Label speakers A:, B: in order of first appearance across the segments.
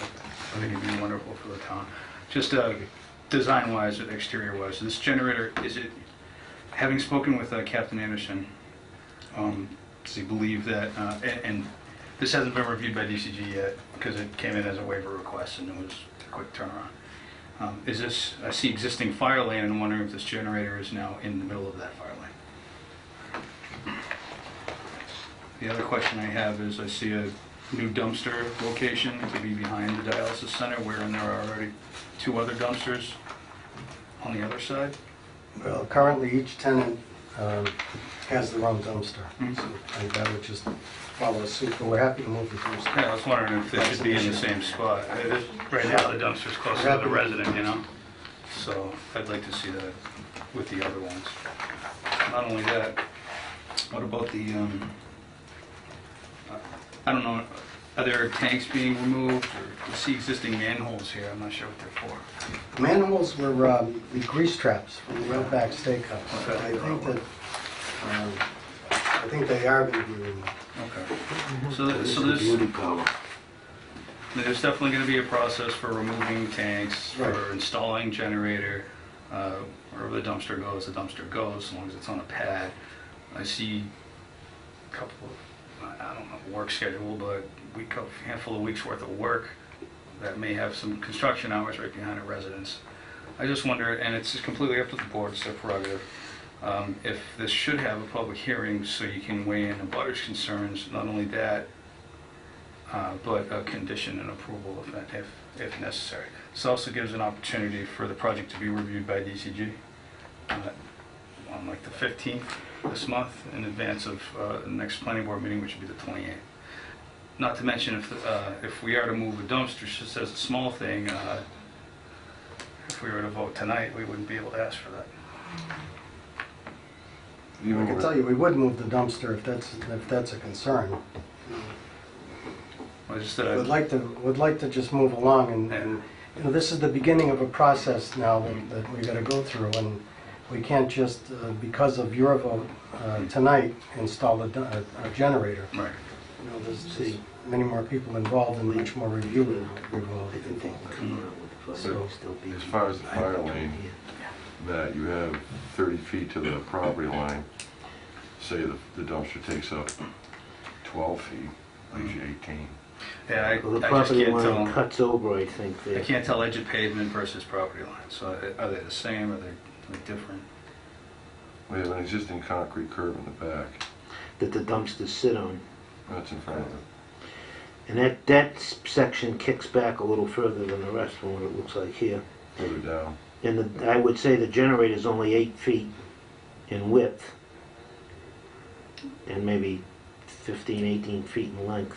A: I think it'd be wonderful for the town. Just uh, design-wise and exterior-wise, this generator, is it, having spoken with uh, Captain Anderson, um, does he believe that, uh, and- and this hasn't been reviewed by DCG yet, because it came in as a waiver request and it was a quick turnaround. Um, Is this, I see existing fire lane, and I'm wondering if this generator is now in the middle of that fire lane? The other question I have is, I see a new dumpster location to be behind the dialysis center, wherein there are already two other dumpsters on the other side.
B: Well, currently, each tenant um, has their own dumpster.
A: Mhm.
B: So I think that would just follow suit, but we're happy to move the dumpster.
A: Yeah, I was wondering if they should be in the same spot. It is- Right now, the dumpster's closer to the resident, you know? So I'd like to see that with the other ones. Not only that, what about the, um, I don't know, are there tanks being removed? or I see existing manholes here, I'm not sure what they're for.
B: The manholes were um, the grease traps from the Redback Steakhouse.
A: Okay.
B: I think that, um, I think they are going to be removed.
A: Okay. So th- so
C: It's a
A: there's,
C: Beauty parlor.
A: there's definitely going to be a process for removing tanks, for
B: Right.
A: installing generator, uh, wherever the dumpster goes, the dumpster goes, as long as it's on a pad. I see a couple of, I I don't know, work schedule, but we, co- handful of weeks worth of work that may have some construction hours right behind a residence. I just wonder, and it's completely up to the board, it's their prerogative, um, if this should have a public hearing so you can weigh in the butters' concerns, not only that, uh, but a condition and approval if that- if, if necessary. This also gives an opportunity for the project to be reviewed by DCG uh, on like the 15th this month in advance of uh, the next planning board meeting, which would be the 28th. Not to mention if, uh, if we are to move a dumpster, just as a small thing, uh, if we were to vote tonight, we wouldn't be able to ask for that.
B: I can tell you, we would move the dumpster if that's, if that's a concern.
A: I just, uh,
B: Would like to, would like to just move along and- and, you know, this is the beginning of a process now that- that we gotta go through and we can't just, uh, because of your vote uh, tonight, install a du- a a generator.
A: right.
B: You know, there's there's many more people involved and much more review involved.
C: They can think and come around with the
B: So,
C: flag, still be.
D: as far as the
C: I don't
D: fire lane,
C: care.
D: that you have 30 feet to the property line, say the the dumpster takes up 12 feet, leaves you 18.
A: Yeah, I I
C: Well, the
A: just
C: property
A: can't
C: line
A: tell,
C: cuts over, I think,
A: I
C: there.
A: can't tell edge of pavement versus property line, so uh, are they the same, are they are they different?
D: We have an existing concrete curb in the back,
C: that the dumpsters sit on.
D: that's in front of it.
C: And that, that s- section kicks back a little further than the rest from what it looks like here.
D: further down.
C: And the, I would say the generator's only eight feet in width and maybe 15, 18 feet in length.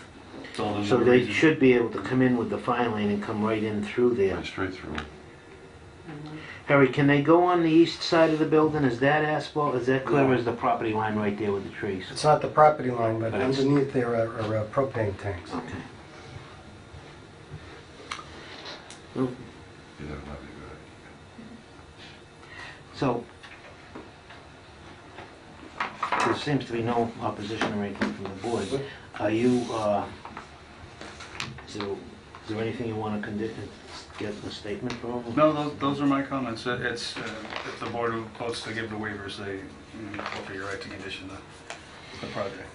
A: It's all the
C: So they
A: reason-
C: should be able to come in with the fire lane and come right in through there.
D: Right straight through.
C: Harry, can they go on the east side of the building? Is that asphalt? Is that clear? Or is the property line right there with the trees?
B: It's not the property line, but
C: But it's-
B: underneath there are are, uh, propane tanks.
C: Okay.
D: Yeah, that might be good.
C: So, there seems to be no opposition or anything from the board. Are you, uh, is there, is there anything you want to condi, get a statement from?
A: No, those, those are my comments, Uh, it's, uh, if the board votes to give the waivers, they, you know, will be right to condition the, the project.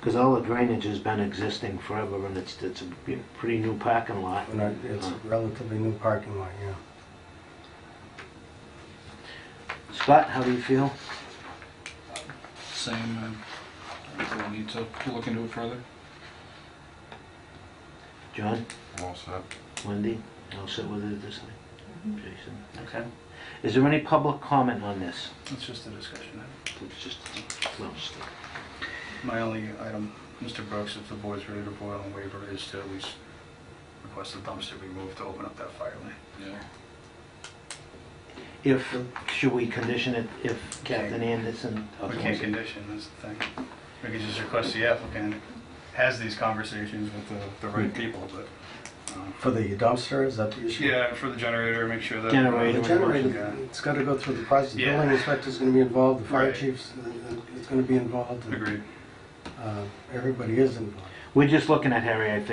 C: Because all the drainage has been existing forever, and it's, it's a b- pretty new parking lot. Uh,
B: And I- It's a relatively new parking lot, yeah.
C: Scott, how do you feel?
E: Same, um, I think we'll need to look into it further.
C: John?
D: I'm all set.
C: Wendy? I'll sit with it this time. Jason?
A: Okay.
C: Is there any public comment on this?
A: It's just a discussion.
C: It's just, well, just-
A: My only item, Mr. Brooks, if the board's ready to vote on waiver, is to at least request the dumpster be moved to open up that fire lane.
E: Yeah.
C: If, should we condition it if Captain Anderson?
A: We can't condition, that's the thing. We could just request the applicant has these conversations with the, the right people, but, um,
B: For the dumpster, is that the issue?
A: yeah, and for the generator, make sure that.
C: Generator.
B: The generator, it's gotta go through the process. The
A: Yeah.
B: building inspector's gonna be involved, the fire
A: Right.
B: chief's, uh, it's gonna be involved. and-
A: Agreed.
B: uh, everybody is involved.
C: We're just looking at Harry, I think.